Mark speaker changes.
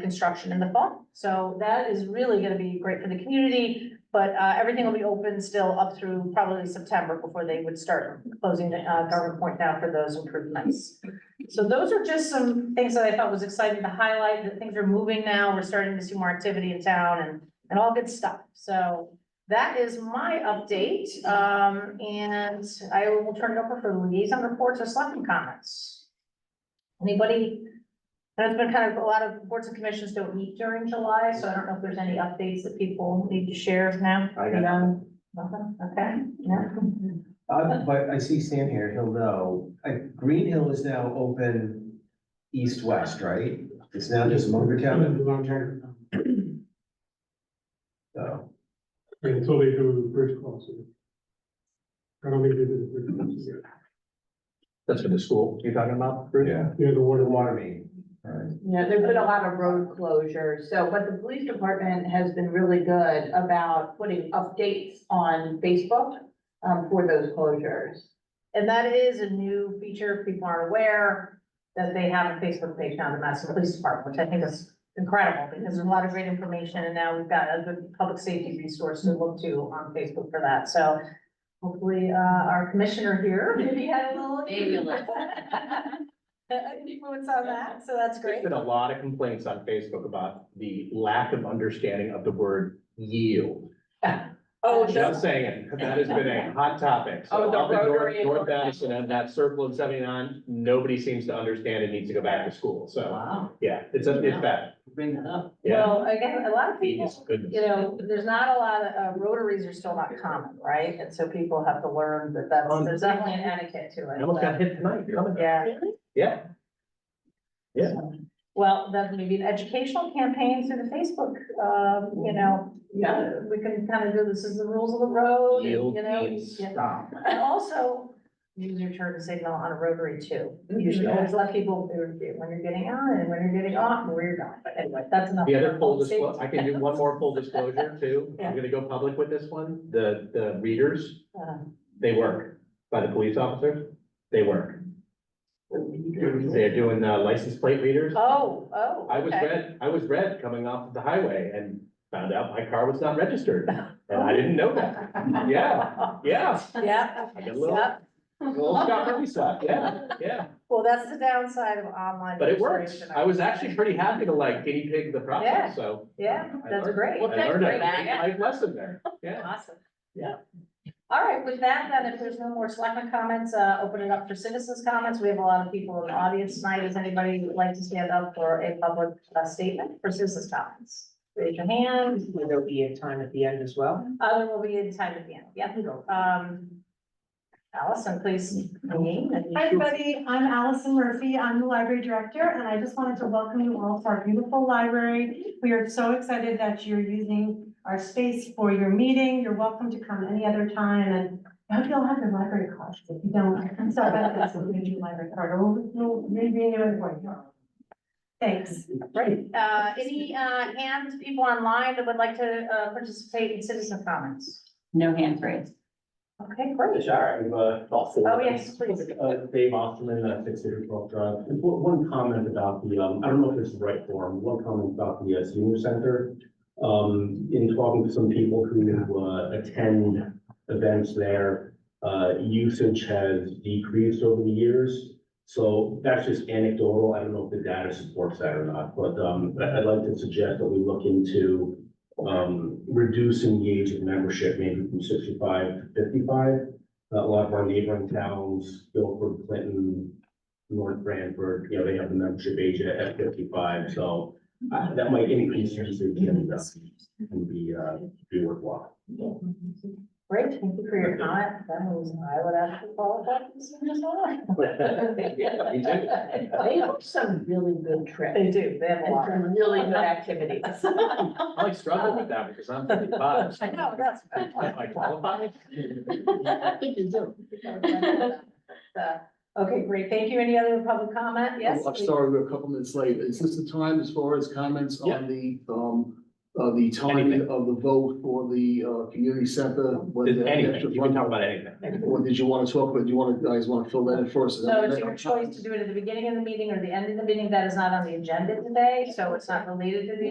Speaker 1: construction in the fall. So that is really gonna be great for the community, but uh, everything will be open still up through probably September before they would start closing uh, Garden Point down for those improvements. So those are just some things that I thought was exciting to highlight, that things are moving now, we're starting to see more activity in town and, and all good stuff. So that is my update, um, and I will turn it over for liaison reports or selecting comments. Anybody? I know It's been kind of, a lot of boards and commissions don't meet during July, so I don't know if there's any updates that people need to share now.
Speaker 2: I got-
Speaker 1: No. Nothing, okay, no.
Speaker 2: Uh, but I see Sam here, he'll know, uh, Green Hill is now open east-west, right? It's now just Munger Town, so,
Speaker 3: Until they do the bridge crossing. I don't think they did the bridge crossing yet.
Speaker 4: That's for the school you're talking about? Bruce?
Speaker 2: yeah,
Speaker 3: Yeah, the
Speaker 2: the
Speaker 3: water.
Speaker 2: water main, right?
Speaker 5: Yeah, there's been a lot of road closures, so, but the police department has been really good about putting updates on Facebook um, for those closures.
Speaker 1: And that is a new feature, if people aren't aware, that they have a Facebook page now, the Madison Police Department, which I think is incredible, because there's a lot of great information, and now we've got a good public safety resource to look to on Facebook for that, so hopefully, uh, our commissioner here, maybe had a little.
Speaker 5: Maybe a little.
Speaker 1: Influence on that, so that's
Speaker 4: There's
Speaker 1: great.
Speaker 4: been a lot of complaints on Facebook about the lack of understanding of the word yield.
Speaker 1: Oh,
Speaker 4: Just saying, it. that has been a hot topic. So
Speaker 5: Oh, the
Speaker 4: up in
Speaker 5: rotary
Speaker 4: North,
Speaker 5: and
Speaker 4: North
Speaker 5: rotary.
Speaker 4: Madison and that circle in seventy-nine, nobody seems to understand it needs to go back to school. So,
Speaker 6: Wow,
Speaker 4: yeah, it's, a- it's bad.
Speaker 6: bring that up.
Speaker 4: Yeah.
Speaker 1: Well, again, a lot of people,
Speaker 4: It's good.
Speaker 1: you know, there's not a lot of, uh, rotaries are still not common, right? And so people have to learn that that's,
Speaker 4: Um,
Speaker 1: there's definitely an etiquette to it.
Speaker 4: I almost
Speaker 1: but-
Speaker 4: got hit tonight. coming.
Speaker 1: Yeah.
Speaker 4: Yeah. Yeah.
Speaker 1: Well, then maybe an educational campaign through the Facebook, um, you know,
Speaker 5: Yeah.
Speaker 1: uh, we can kind of do this as the rules of the road, and,
Speaker 4: Yield
Speaker 1: you know.
Speaker 4: means
Speaker 1: yeah.
Speaker 4: stop.
Speaker 1: And also, use your turn signal on a rotary too. You should
Speaker 4: Mhm.
Speaker 1: always let people, when you're getting on and when you're getting off and where you're going, but anyway, that's enough.
Speaker 4: The other
Speaker 1: for
Speaker 4: full
Speaker 1: public
Speaker 4: disclosure, I
Speaker 1: safety.
Speaker 4: can do one more full disclosure too.
Speaker 1: Yeah.
Speaker 4: I'm gonna go public with this one. The, the readers,
Speaker 1: Uh,
Speaker 4: they work by the police officers. They work. They're doing uh, license plate readers.
Speaker 1: Oh, oh.
Speaker 4: I was
Speaker 1: okay.
Speaker 4: red, I was red coming off the highway and found out my car was not registered. And I didn't know that. Yeah, yeah.
Speaker 1: Yeah.
Speaker 4: I get a little-
Speaker 1: Yep.
Speaker 4: A Little Scott Murphy stuff, yeah, yeah.
Speaker 1: Well, that's the downside of online.
Speaker 4: But it works.
Speaker 1: registration,
Speaker 4: I was
Speaker 1: would
Speaker 4: actually
Speaker 1: say.
Speaker 4: pretty happy to like guinea pig the
Speaker 1: Yeah.
Speaker 4: process, so.
Speaker 1: Yeah,
Speaker 4: I
Speaker 1: that's
Speaker 4: learned-
Speaker 1: great.
Speaker 4: I
Speaker 1: Well,
Speaker 6: thanks
Speaker 4: learned
Speaker 6: for
Speaker 4: a
Speaker 6: that.
Speaker 4: great life lesson there, yeah.
Speaker 1: Awesome.
Speaker 4: Yeah.
Speaker 1: All right, with that, then, if there's no more selectmen comments, uh, open it up for citizens' comments. We have a lot of people in the audience tonight. Does anybody who would like to stand up for a public uh, statement for citizens' comments? Raise your hand.
Speaker 6: Will there be a time at the end as well?
Speaker 1: Uh, there will be a time at the end. Yeah, go. Um, Allison, please. name and-
Speaker 7: Hi, everybody. I'm Allison Murphy. I'm the library director, and I just wanted to welcome you all to our beautiful library. We are so excited that you're using our space for your meeting. You're welcome to come any other time, and I hope you all have your library cards. If you don't, I'm sorry about this, we'll need your library card, or we'll renew it for you. Thanks.
Speaker 1: Great. Uh, any, uh, hands, people online that would like to, uh, participate in citizen comments?
Speaker 6: No hands raised.
Speaker 1: Okay, great.
Speaker 8: Sorry, I'm, uh, thoughtful.
Speaker 1: Oh, yes, please.
Speaker 8: Uh, Dave Osterman, uh, six zero twelve drive. Just One, one comment about the, um, I don't know if this is the right form, one comment about the uh, senior center. Um, in talking to some people who, uh, attend events there, uh, usage has decreased over the years. So that's just anecdotal. I don't know if the data supports that or not, but, um, I- I'd like to suggest that we look into, um, reducing the age of membership, maybe from sixty-five to fifty-five a lot of our neighboring towns, Guilford, Clinton, North Branford, you know, they have the membership age at at fifty-five, so uh, that might increase your usage and uh, and be, uh, be worthwhile.
Speaker 1: Great, thank you for your comment. That means I would actually qualify for this as well.
Speaker 4: Yeah, me too.
Speaker 5: They have some really good trips
Speaker 1: They do, they have a
Speaker 5: and
Speaker 1: lot.
Speaker 5: some really good activities.
Speaker 4: I like struggle with that because I'm thirty-five. so
Speaker 1: I know, that's.
Speaker 4: Am I qualified?
Speaker 5: I think you do.
Speaker 1: Uh, Okay, great. Thank you. Any other public comment? Yes?
Speaker 9: I'm sorry, we're a couple minutes late. Is this the time as far as comments on the, um, uh, the timing
Speaker 4: Anything.
Speaker 9: of the vote for the, uh, community center. what
Speaker 4: Just
Speaker 9: the extra
Speaker 4: anything, you can
Speaker 9: funding-
Speaker 4: talk about anything.
Speaker 9: Or did you want to talk, about? do you want to, guys want to fill that in first? Is
Speaker 1: So
Speaker 9: that-
Speaker 1: it's your choice to do it at the beginning of the meeting or the end of the meeting. That is not on the agenda today, so it's not related to the